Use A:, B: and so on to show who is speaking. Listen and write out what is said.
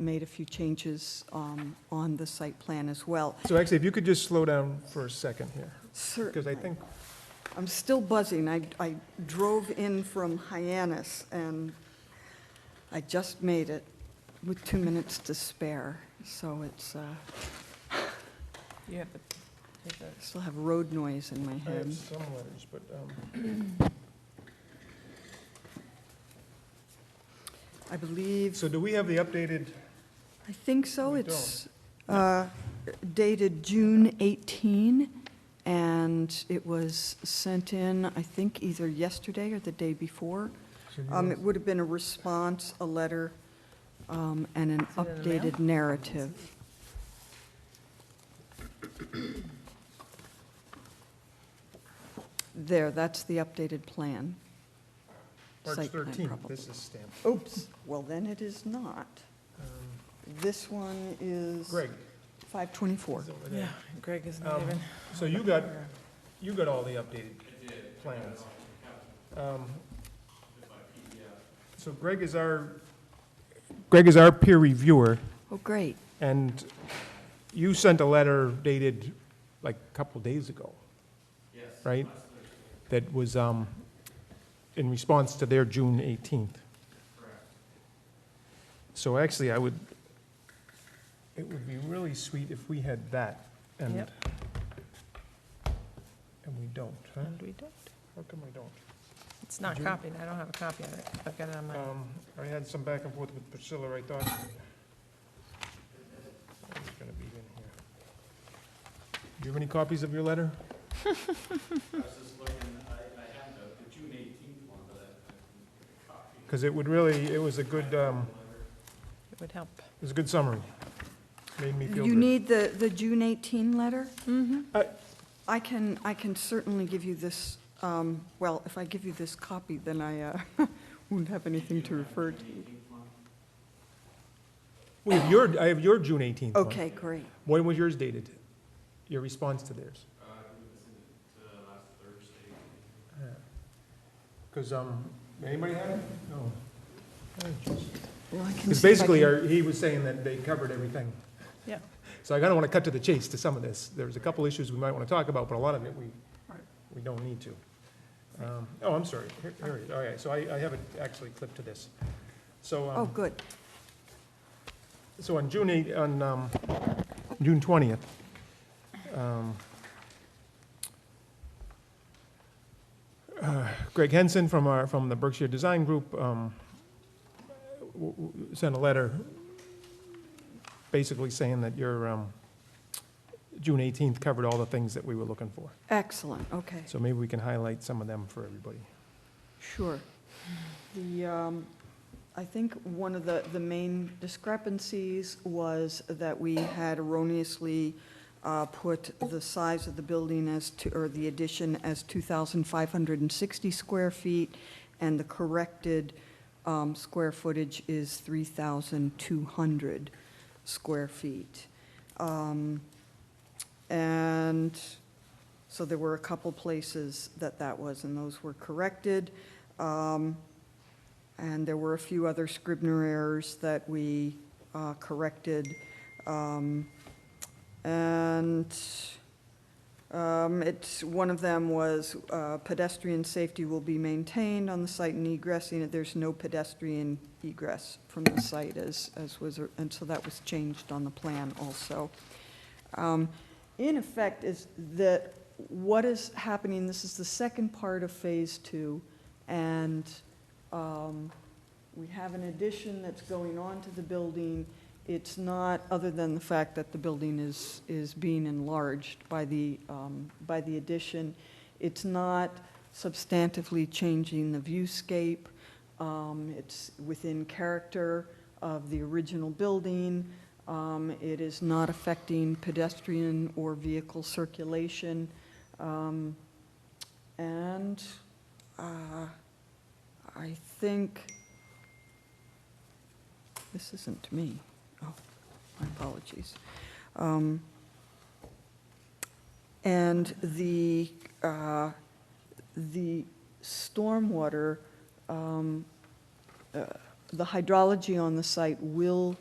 A: made a few changes um, on the site plan as well.
B: So actually, if you could just slow down for a second here, because
A: Certainly.
B: I think,
A: I'm still buzzing. I, I drove in from Hyannis, and I just made it with two minutes to spare, so it's, uh,
C: You have to take that.
A: I still have road noise in my
B: I have
A: head.
B: some letters, but, um,
A: I believe,
B: so do we have the updated,
A: I think so.
B: We
A: It's uh, dated June 18, and it was sent in, I think, either yesterday or the day before. Um, It would have been a response, a letter, um, and an
C: Is it in the mail?
A: updated narrative. There, that's the updated plan.
B: March
A: Site plan,
B: 13th,
A: probably.
B: this is stamped.
A: Oops, well, then it is not.
B: Um,
A: This one is.
B: Greg,
A: 524.
B: is over
C: Yeah,
B: there.
C: Greg isn't
B: Um,
C: even.
B: So you got, you got all the updated plans. Um, So Greg is our, Greg is our peer reviewer,
A: Oh, great.
B: and you sent a letter dated like a couple days ago. Yes. Right? That was um, in response to their June 18th. Correct. So actually, I would, it would be really sweet if we had that, and,
C: Yep.
B: and we don't, huh?
C: And we don't.
B: How come we don't?
C: It's not
B: Did you-
C: copied. I don't have a copy of it. I've got it on my,
B: Um, I had some back and forth with Priscilla, I thought. It's gonna be in here. Do you have any copies of your letter? I was just looking, I, I have the June eighteenth one, but I, I copy. Because it would really, it was a good, um,
C: it would help.
B: it was a good summary. Made me feel
A: You
B: good. Uh,
A: need the, the June 18 letter?
C: Mm-hmm.
A: I can, I can certainly give you this, um, well, if I give you this copy, then I uh, won't have anything to refer to.
B: We have your, I have your June eighteenth one.
A: Okay, great.
B: When was yours dated? Your response to theirs? Uh, Cause, um, anybody had it? No.
A: Well, I can
B: Because
A: see if I
B: basically,
A: can-
B: our- he was saying that they covered everything.
C: Yeah.
B: So I kind of want to cut to the chase to some of this. There's a couple issues we might want to talk about, but a lot of it, we, we don't need to. Um, Oh, I'm sorry. Here, here it is. All right, so I, I have it actually clipped to this. So,
A: Oh,
B: um,
A: good.
B: so on June 8, on, um, June 20th, um, uh, Greg Henson from our, from the Berkshire Design Group, um, w- w- sent a letter basically saying that your, um, June 18th covered all the things that we were looking for.
A: Excellent, okay,
B: So maybe we can highlight some of them for everybody.
A: sure. The, um, I think one of the, the main discrepancies was that we had erroneously uh, put the size of the building as, to- or the addition as 2,560 square feet, and the corrected um, square footage is 3,200 square feet. Um, And so there were a couple places that that was, and those were corrected. Um, And there were a few other Scribner errors that we uh, corrected. Um, And um, it's, one of them was uh, pedestrian safety will be maintained on the site and egressing. it. There's no pedestrian egress from the site as, as was, and so that was changed on the plan also. Um, In effect, is that what is happening, this is the second part of Phase Two, and um, we have an addition that's going on to the building. It's not, other than the fact that the building is, is being enlarged by the, um, by the addition, it's not substantively changing the viewscape. Um, It's within character of the original building. Um, It is not affecting pedestrian or vehicle circulation. Um, And uh, I think, this isn't to me. Oh, my apologies. Um, And the, uh, the stormwater, um, uh, the hydrology on the site will